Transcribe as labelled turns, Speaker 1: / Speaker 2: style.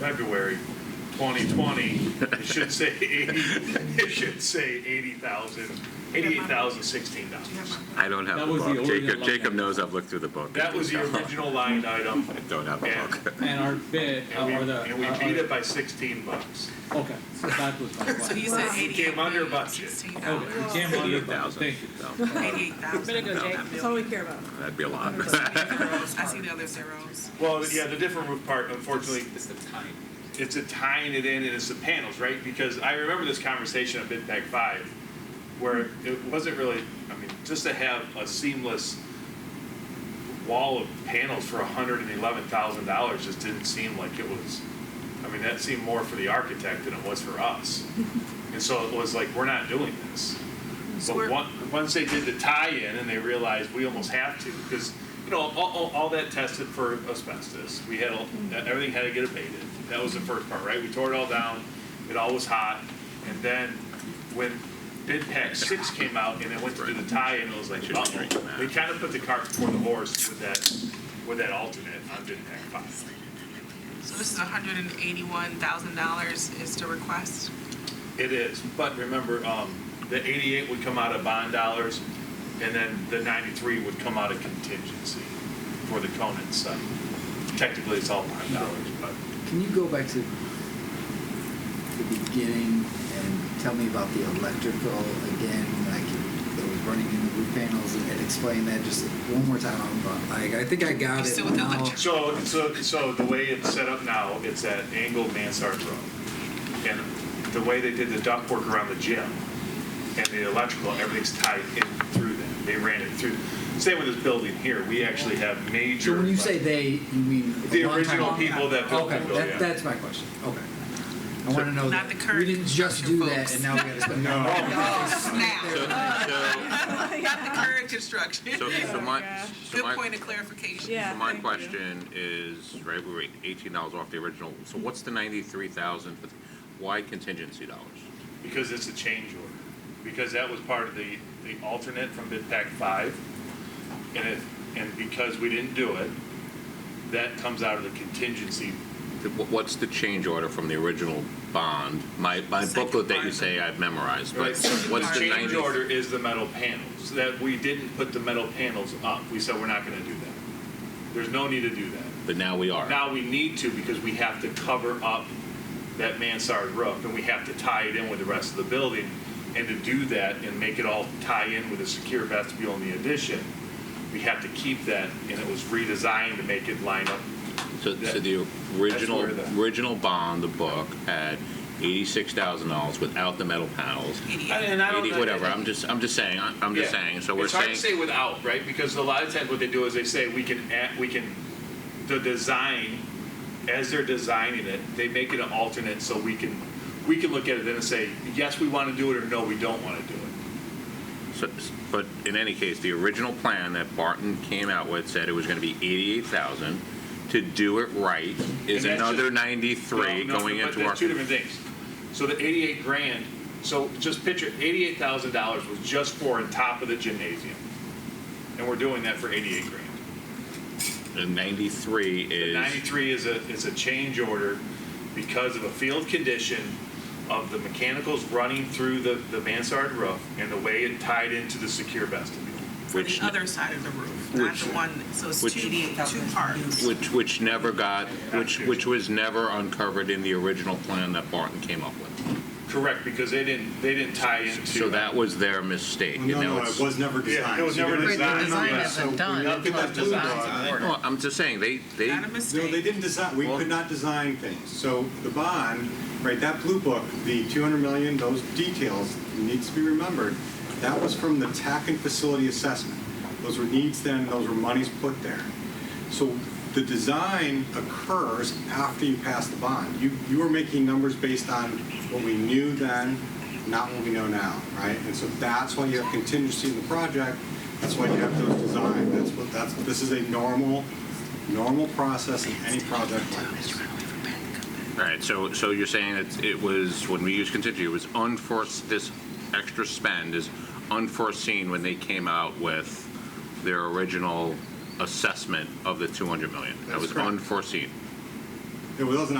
Speaker 1: February 2020, it should say 80, it should say 80,000, $88,016.
Speaker 2: I don't have
Speaker 3: That
Speaker 2: the
Speaker 3: was the
Speaker 2: book. Jacob,
Speaker 3: original
Speaker 2: Jacob
Speaker 3: line.
Speaker 2: knows I've looked through the book.
Speaker 1: That was the original line item,
Speaker 2: I don't have a
Speaker 1: and,
Speaker 2: book.
Speaker 3: And our bid, uh,
Speaker 1: and we,
Speaker 3: or the.
Speaker 1: and we
Speaker 3: our-
Speaker 1: beat
Speaker 3: our-
Speaker 1: it by 16 bucks.
Speaker 3: Okay, so that was my
Speaker 4: So you
Speaker 3: question.
Speaker 4: said
Speaker 1: We came under budget.
Speaker 3: Okay, we
Speaker 4: $88,016.
Speaker 3: can't run it, but thank you.
Speaker 4: Eighty-eight thousand.
Speaker 5: That's all we care about.
Speaker 2: That'd be a lot.
Speaker 4: I see the other zeros.
Speaker 1: Well, yeah, the different roof part, unfortunately,
Speaker 6: It's the time.
Speaker 1: it's a tying it in and it's the panels, right? Because I remember this conversation on Bid Pack Five, where it wasn't really, I mean, just to have a seamless wall of panels for hundred and eleven thousand dollars just didn't seem like it was, I mean, that seemed more for the architect than it was for us. And so it was like, we're not doing this.
Speaker 4: So
Speaker 1: But
Speaker 4: we're-
Speaker 1: one, once they did the tie-in and they realized we almost have to, because, you know, all, all, all that tested for asbestos. We had, all-
Speaker 4: Mm-hmm.
Speaker 1: e-, everything had to get abated. That was the first part, right? We tore it all down, it all was hot. And then when bid pack six came out and it went to do the tie-in, it was like,
Speaker 2: Should be drinking that.
Speaker 1: uh-oh. They kind of put the cart before the horse with that, with that alternate on bid pack five.
Speaker 4: So this is hundred and eighty-one thousand dollars is to request.
Speaker 1: It is, but remember, um, the eighty-eight would come out of bond dollars, and then the ninety-three would come out of contingency for the Conan site. Technically, it's all bond dollars, but
Speaker 7: Can you go back to the beginning and tell me about the electrical again, like that was running in the roof panels and and explain that just one more time? I'm, uh, Like, I think I got it.
Speaker 4: Still with the
Speaker 7: now.
Speaker 4: electric.
Speaker 1: so, so, so the way it's set up now, it's at angle Mansard Road. And the way they did the duct work around the gym and the electrical, everything's tied in through that. They ran it through. Same with this building here. We actually have major.
Speaker 7: So when you say they, you mean? a
Speaker 1: The
Speaker 7: long time
Speaker 1: original
Speaker 7: ago?
Speaker 1: people that built the
Speaker 7: Okay,
Speaker 1: building, yeah.
Speaker 7: that, that's my question, okay. I want to know
Speaker 4: Not
Speaker 7: that.
Speaker 4: the current
Speaker 7: We didn't just do that
Speaker 4: construction
Speaker 7: and now we got to spend.
Speaker 4: Now,
Speaker 2: So,
Speaker 4: not the current construction.
Speaker 2: so, so my, so
Speaker 4: Good
Speaker 2: my,
Speaker 4: point of clarification.
Speaker 5: Yeah.
Speaker 2: so my
Speaker 5: thank you.
Speaker 2: question is, right, we were eighteen dollars off the original. So what's the ninety-three thousand? Why contingency dollars?
Speaker 1: Because it's a change order, because that was part of the, the alternate from bid pack five. And it, and because we didn't do it, that comes out of the contingency.
Speaker 2: The- wh- What's the change order from the original bond? My, my
Speaker 4: Second
Speaker 2: booklet that you
Speaker 4: part.
Speaker 2: say I've memorized, but
Speaker 1: So
Speaker 2: what's the
Speaker 1: Change
Speaker 2: ninety?
Speaker 1: order is the metal panels, that we didn't put the metal panels up, we said we're not gonna do that. There's no need to do that.
Speaker 2: But now we are.
Speaker 1: Now we need to because we have to cover up that mansard roof and we have to tie it in with the rest of the building. And to do that and make it all tie in with a secure vestibule in the addition, we have to keep that and it was redesigned to make it line up.
Speaker 2: So, so
Speaker 1: That-
Speaker 2: the original,
Speaker 1: where the-
Speaker 2: original bond, the book, had eighty-six thousand dollars without the metal panels.
Speaker 1: And I don't
Speaker 2: Eighty,
Speaker 1: know-
Speaker 2: whatever, I'm just, I'm just saying, I- I'm just
Speaker 1: Yeah.
Speaker 2: saying, so we're
Speaker 1: It's hard to say
Speaker 2: saying,
Speaker 1: without, right? Because a lot of times what they do is they say, we can add, we can, the design, as they're designing it, they make it an alternate so we can, we can look at it then and say, yes, we want to do it or no, we don't want to do it.
Speaker 2: so- but in any case, the original plan that Barton came out with said it was gonna be eighty-eight thousand. To do it right is
Speaker 1: And that's
Speaker 2: another
Speaker 1: just-
Speaker 2: ninety-three
Speaker 1: No, no,
Speaker 2: going
Speaker 1: but
Speaker 2: into
Speaker 1: there's
Speaker 2: our.
Speaker 1: Two different things. So the eighty-eight grand, so just picture, eighty-eight thousand dollars was just for on top of the gymnasium. And we're doing that for eighty-eight grand.
Speaker 2: And ninety-three
Speaker 1: The
Speaker 2: is,
Speaker 1: ninety-three is a, is a change order because of a field condition of the mechanicals running through the, the mansard roof and the way it tied into the secure vestibule.
Speaker 4: For
Speaker 2: which,
Speaker 4: the other side of the roof, not
Speaker 2: which-
Speaker 4: the one, so it's
Speaker 2: which-
Speaker 4: two, two parts.
Speaker 2: which, which never got, which, which was never uncovered in the original plan that Barton came up with.
Speaker 1: Correct, because they didn't, they didn't tie into.
Speaker 2: So that was their mistake. and
Speaker 8: No,
Speaker 2: now
Speaker 8: no,
Speaker 2: it's-
Speaker 8: it was never
Speaker 1: Yeah,
Speaker 8: designed.
Speaker 1: it was
Speaker 8: So
Speaker 1: never
Speaker 8: you're right,
Speaker 1: designed,
Speaker 8: no, no,
Speaker 1: yeah.
Speaker 8: so when you look at that blue dot-
Speaker 2: No, I'm just saying, they, they,
Speaker 4: Not a
Speaker 8: No, they
Speaker 4: mistake.
Speaker 8: didn't design, we
Speaker 2: Well-
Speaker 8: could not design things. So the bond, right, that blue book, the 200 million, those details needs to be remembered. That was from the TAC and facility assessment. Those were needs then, those were monies put there. So the design occurs after you pass the bond. You, you are making numbers based on what we knew then, not what we know now, right? And so that's why you have contingency in the project, that's why you have those designs. That's what, that's, this is a normal, normal process in any project like this.
Speaker 2: all right, so, so you're saying that it was, when we use contingency, it was unforeseen, this extra spend is unforeseen when they came out with their original assessment of the 200 million? That
Speaker 8: That's
Speaker 2: was
Speaker 8: correct.
Speaker 2: unforeseen?
Speaker 8: It wasn't